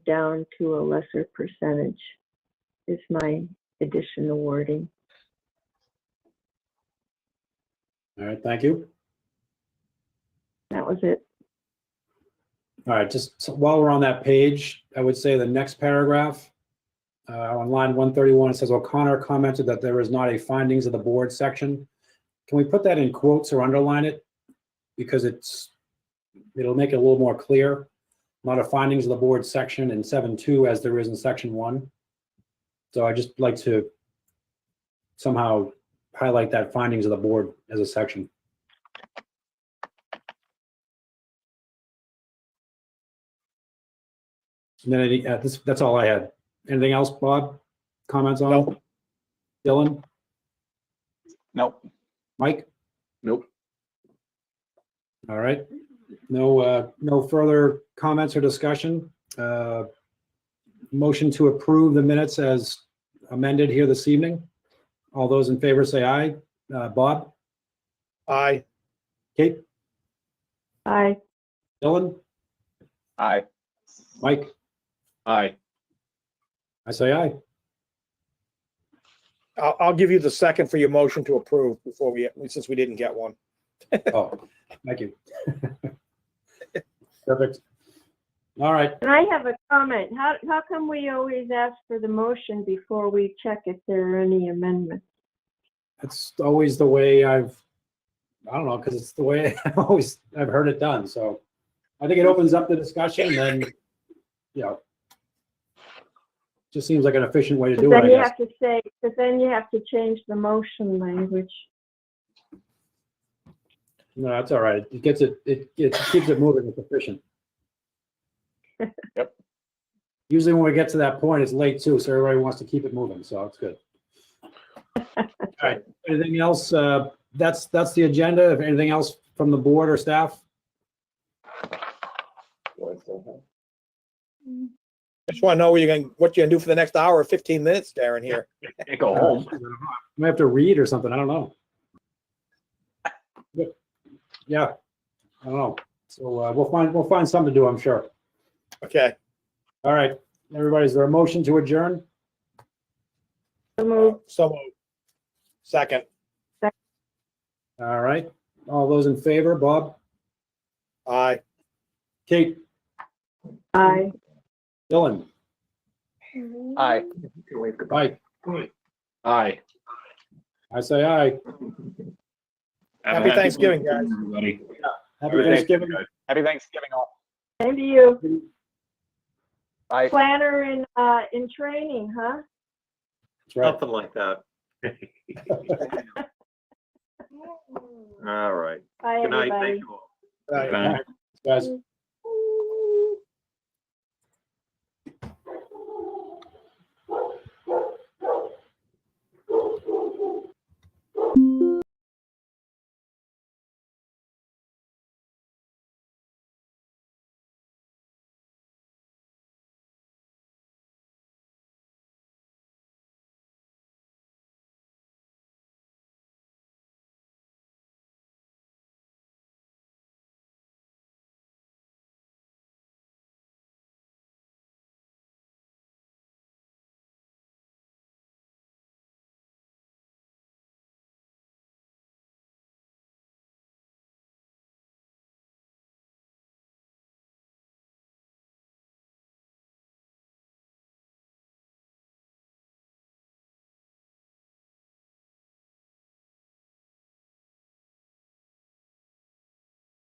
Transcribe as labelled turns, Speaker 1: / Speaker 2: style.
Speaker 1: down to a lesser percentage is my additional wording.
Speaker 2: All right, thank you.
Speaker 1: That was it.
Speaker 2: All right, just so while we're on that page, I would say the next paragraph, uh, on line one thirty-one, it says O'Connor commented that there is not a findings of the board section. Can we put that in quotes or underline it? Because it's, it'll make it a little more clear. Not a findings of the board section in seven two as there is in section one. So I just like to somehow highlight that findings of the board as a section. And then any, uh, this, that's all I had. Anything else, Bob? Comments on? Dylan,
Speaker 3: Nope.
Speaker 2: Mike?
Speaker 3: Nope.
Speaker 2: All right. No, uh, no further comments or discussion. Uh, Motion to approve the minutes as amended here this evening. All those in favor say aye. Uh, Bob,
Speaker 4: Aye.
Speaker 2: Kate,
Speaker 1: Aye.
Speaker 2: Dylan,
Speaker 3: Aye.
Speaker 2: Mike?
Speaker 3: Aye.
Speaker 2: I say aye.
Speaker 4: I'll, I'll give you the second for your motion to approve before we, since we didn't get one.
Speaker 2: Oh, thank you. Perfect. All right.
Speaker 1: And I have a comment. How, how come we always ask for the motion before we check if there are any amendments?
Speaker 2: That's always the way I've, I don't know, because it's the way I've always, I've heard it done, so. I think it opens up the discussion and, you know. Just seems like an efficient way to
Speaker 1: But
Speaker 2: do it, I
Speaker 1: then you
Speaker 2: guess.
Speaker 1: have to say, but then you have to change the motion language.
Speaker 2: No, that's all right. It gets it, it, it keeps it moving, it's efficient.
Speaker 3: Yep.
Speaker 2: Usually when we get to that point, it's late too, so everybody wants to keep it moving, so it's good. All right, anything else? Uh, that's, that's the agenda. If anything else from the board or staff?
Speaker 4: Just want to know what you're going, what you're going to do for the next hour or 15 minutes, Darren, here.
Speaker 3: Can't go
Speaker 2: I
Speaker 3: home.
Speaker 2: might have to read or something, I don't know. But, Yeah, I don't know. So uh, we'll find, we'll find something to do, I'm sure.
Speaker 4: Okay.
Speaker 2: All right, everybody, is there a motion to adjourn?
Speaker 1: So moved.
Speaker 4: So moved. Second.
Speaker 2: All right, all those in favor, Bob,
Speaker 4: Aye.
Speaker 2: Kate,
Speaker 1: Aye.
Speaker 2: Dylan,
Speaker 3: Aye.
Speaker 2: Mike,
Speaker 3: Aye.
Speaker 2: I say aye.
Speaker 4: Happy Thanksgiving, guys.
Speaker 3: Everybody.
Speaker 2: Happy Thanksgiving.
Speaker 3: Happy Thanksgiving all.
Speaker 1: Same to you.
Speaker 3: Aye.
Speaker 1: Planner in, uh, in training, huh?
Speaker 2: That's right.
Speaker 5: Something like that. All right.
Speaker 1: Bye,
Speaker 5: Good
Speaker 1: everybody.
Speaker 5: night. Thank you all.
Speaker 4: Aye.
Speaker 2: Guys.